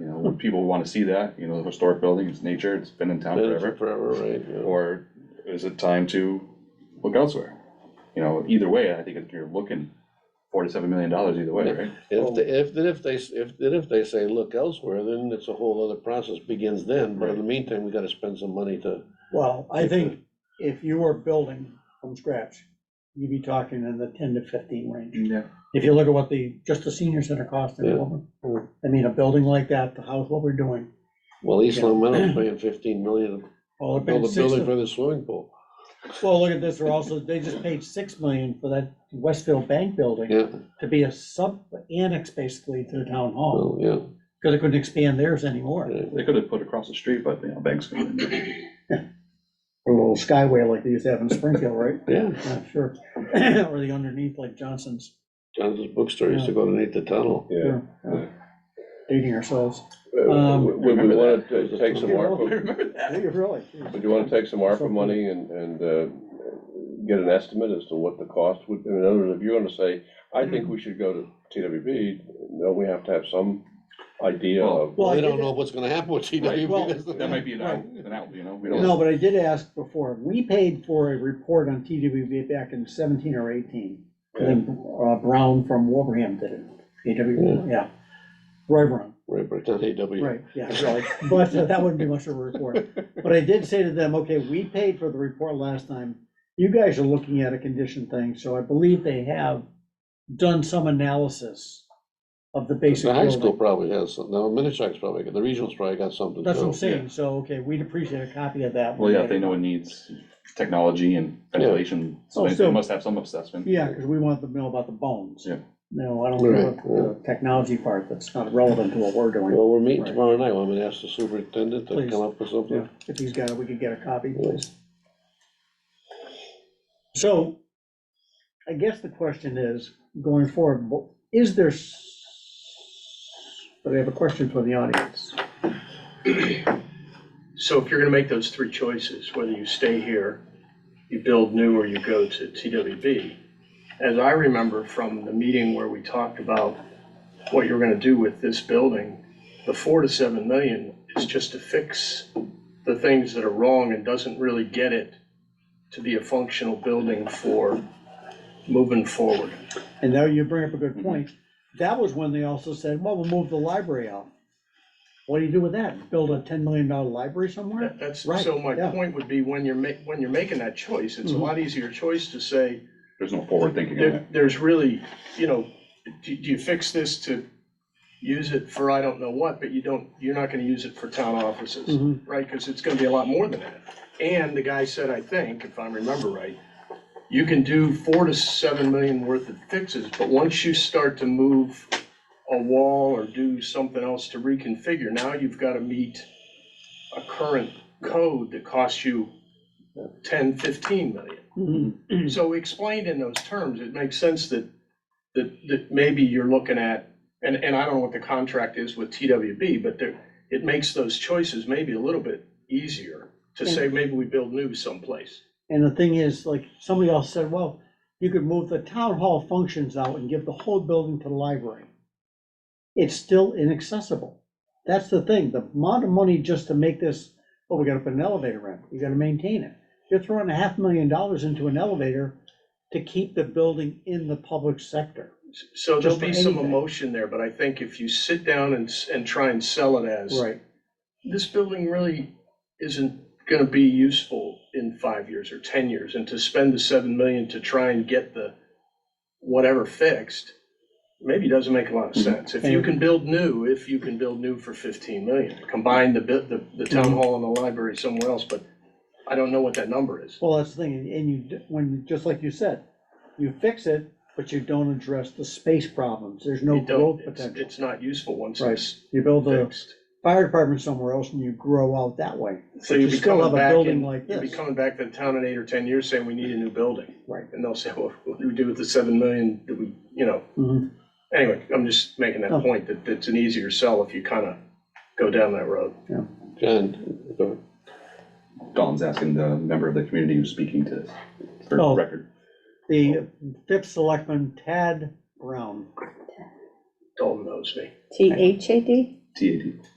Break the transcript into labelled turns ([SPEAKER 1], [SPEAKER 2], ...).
[SPEAKER 1] would people wanna see that, you know, the historic building, it's nature, it's been in town
[SPEAKER 2] Forever,
[SPEAKER 1] forever?
[SPEAKER 2] forever, right? yeah.
[SPEAKER 1] Or is it time to look elsewhere? You know, either way, I think if you're looking forty-seven million dollars either way, right?
[SPEAKER 2] If, they- if, then if they, s- if, then if they say, look elsewhere, then it's a whole other process begins then, but in the meantime, we gotta spend some money to.
[SPEAKER 3] Well, I
[SPEAKER 2] If
[SPEAKER 3] think if you were building from scratch, you'd be talking in the ten to fifteen range.
[SPEAKER 1] Yeah.
[SPEAKER 3] If you look at what the, just the senior center cost in
[SPEAKER 2] Yeah. Mm-hmm.
[SPEAKER 3] Wilburn,
[SPEAKER 2] Yeah.
[SPEAKER 3] I mean, a building like that, the house, what we're doing,
[SPEAKER 2] Well, East Long Meadow's paying fifteen million to
[SPEAKER 3] well, it paid
[SPEAKER 2] build a
[SPEAKER 3] six,
[SPEAKER 2] building for the swimming pool.
[SPEAKER 3] well, look at this, they're also, they just paid six million for that Westfield Bank building
[SPEAKER 2] Yeah,
[SPEAKER 3] to be a sub annex basically to the town hall,
[SPEAKER 2] well, yeah.
[SPEAKER 3] because they couldn't expand theirs anymore.
[SPEAKER 2] yeah.
[SPEAKER 1] They could have put across the street, but, you know, banks. couldn't.
[SPEAKER 3] A little skyway like they used to have in Springfield, right?
[SPEAKER 2] Yeah,
[SPEAKER 3] Yeah, sure, or the underneath like Johnson's,
[SPEAKER 2] Johnson's bookstore used to go underneath the tunnel.
[SPEAKER 4] Yeah.
[SPEAKER 3] dating ourselves.
[SPEAKER 4] Uh,
[SPEAKER 3] Um,
[SPEAKER 4] Would would we want to take some
[SPEAKER 3] Yeah,
[SPEAKER 4] ARPA,
[SPEAKER 3] well,
[SPEAKER 1] Remember
[SPEAKER 3] Yeah,
[SPEAKER 1] that?
[SPEAKER 3] you really. geez.
[SPEAKER 4] would you want to take some ARPA money and, and uh, get an estimate as to what the cost would, in other words, if you're going to say, I think we should go to TWB, don't we have to have some idea of,
[SPEAKER 2] Well,
[SPEAKER 3] Well, I
[SPEAKER 2] they don't
[SPEAKER 3] did-
[SPEAKER 2] know what's gonna happen with
[SPEAKER 3] well,
[SPEAKER 2] TWB.
[SPEAKER 1] That might be an out, an out, you know, we don't.
[SPEAKER 3] No, but I did ask before, we paid for a report on TWB back in seventeen or eighteen. I think uh, Brown from Wolverham did it, TWB, yeah. Roy Brown,
[SPEAKER 2] Right, but it's not AW.
[SPEAKER 3] right, yeah, really. but uh, that wouldn't be much of a report. But I did say to them, okay, we paid for the report last time. You guys are looking at a condition thing, so I believe they have done some analysis of the basic
[SPEAKER 2] The high
[SPEAKER 3] building.
[SPEAKER 2] school probably has, some- no, Minichog's probably, got- the regional's probably got something
[SPEAKER 3] That's what I'm
[SPEAKER 2] too.
[SPEAKER 3] saying, so, okay, we'd appreciate a copy of that.
[SPEAKER 1] Well, yeah, if they know it needs technology and ventilation, so
[SPEAKER 3] Oh,
[SPEAKER 1] they- they
[SPEAKER 3] so-
[SPEAKER 1] must have some assessment.
[SPEAKER 3] Yeah, because we want them to know about the bones.
[SPEAKER 1] Yeah.
[SPEAKER 3] No, I don't care
[SPEAKER 2] Right,
[SPEAKER 3] about the technology part, that's not relevant to what we're doing.
[SPEAKER 2] Well, we're meeting
[SPEAKER 3] Right.
[SPEAKER 2] tomorrow night, I'm gonna ask the superintendent to
[SPEAKER 3] Please.
[SPEAKER 2] come up with
[SPEAKER 3] Yeah,
[SPEAKER 2] something.
[SPEAKER 3] If he's got it, we could get a copy,
[SPEAKER 2] Yeah.
[SPEAKER 3] please. So, I guess the question is, going forward, wha- is there, s- but I have a question for the audience.
[SPEAKER 5] So if you're gonna make those three choices, whether you stay here, you build new, or you go to TWB, as I remember from the meeting where we talked about what you're gonna do with this building, the four to seven million is just to fix the things that are wrong and doesn't really get it to be a functional building for moving forward.
[SPEAKER 3] And now you bring up a
[SPEAKER 5] Mm-hmm.
[SPEAKER 3] good point. That was when they also said, well, we'll move the library out. What do you do with that? Build a ten million dollar library somewhere?
[SPEAKER 5] That- That's,
[SPEAKER 3] Right,
[SPEAKER 5] so my
[SPEAKER 3] yeah.
[SPEAKER 5] point would be, when you're ma, when you're making that choice, it's a
[SPEAKER 3] Mhm.
[SPEAKER 5] lot easier choice to say,
[SPEAKER 1] There's no forward thinking in it.
[SPEAKER 5] There, there's really, you know, do, do you fix this to use it for I don't know what, but you don't, you're not gonna use it for town offices,
[SPEAKER 3] Mhm.
[SPEAKER 5] right? Cause it's gonna be a lot more than that. And the guy said, I think, if I remember right, you can do four to seven million worth of fixes, but once you start to move a wall or do something else to reconfigure, now you've gotta meet a current code that costs you ten, fifteen million.
[SPEAKER 3] Mhm.
[SPEAKER 5] So explained in those terms, it makes sense that, that, that maybe you're looking at, and, and I don't know what the contract is with TWB, but there, it makes those choices maybe a little bit easier to say, maybe we build new someplace.
[SPEAKER 3] And the thing is, like, somebody else said, well, you could move the town hall functions out and give the whole building to the library. It's still inaccessible. That's the thing, the amount of money just to make this, well, we gotta put an elevator in, you gotta maintain it. You're throwing a half million dollars into an elevator to keep the building in the public sector.
[SPEAKER 5] So there'll
[SPEAKER 3] Just for
[SPEAKER 5] be some
[SPEAKER 3] anything.
[SPEAKER 5] emotion there, but I think if you sit down and, s- and try and sell it as,
[SPEAKER 3] Right.
[SPEAKER 5] this building really isn't gonna be useful in five years or ten years, and to spend the seven million to try and get the whatever fixed, maybe doesn't make a lot of
[SPEAKER 3] Mm-hmm.
[SPEAKER 5] sense. If you can build new, if you can build new for fifteen million, combine the bit, the, the town
[SPEAKER 3] Mm-hmm.
[SPEAKER 5] hall and the library somewhere else, but I don't know what that number is.
[SPEAKER 3] Well, that's the thing, and you, d- when, just like you said, you fix it, but you don't address the space problems, there's no
[SPEAKER 5] You
[SPEAKER 3] growth
[SPEAKER 5] don't, it's,
[SPEAKER 3] potential.
[SPEAKER 5] it's not useful once
[SPEAKER 3] Right.
[SPEAKER 5] it's
[SPEAKER 3] You build a
[SPEAKER 5] fixed.
[SPEAKER 3] fire department somewhere else and you grow out that way.
[SPEAKER 5] So
[SPEAKER 3] But
[SPEAKER 5] you'd
[SPEAKER 3] you
[SPEAKER 5] be
[SPEAKER 3] still
[SPEAKER 5] coming
[SPEAKER 3] have a
[SPEAKER 5] back
[SPEAKER 3] building
[SPEAKER 5] and,
[SPEAKER 3] like
[SPEAKER 5] you'd be
[SPEAKER 3] this.
[SPEAKER 5] coming back to the town in eight or ten years saying, we need a new building.
[SPEAKER 3] Right.
[SPEAKER 5] And they'll say, well, what do we do with the seven million that we, you know,
[SPEAKER 3] Mhm.
[SPEAKER 5] anyway, I'm just making that
[SPEAKER 3] Oh.
[SPEAKER 5] point that it's an easier sell if you kind of go down that road.
[SPEAKER 2] John, go ahead.
[SPEAKER 1] Don's asking the member of the community who's speaking to this for
[SPEAKER 3] Oh.
[SPEAKER 1] record.
[SPEAKER 3] The fifth selectman, Tad Brown.
[SPEAKER 5] Dalton knows me.
[SPEAKER 6] T H A D?
[SPEAKER 1] TAD.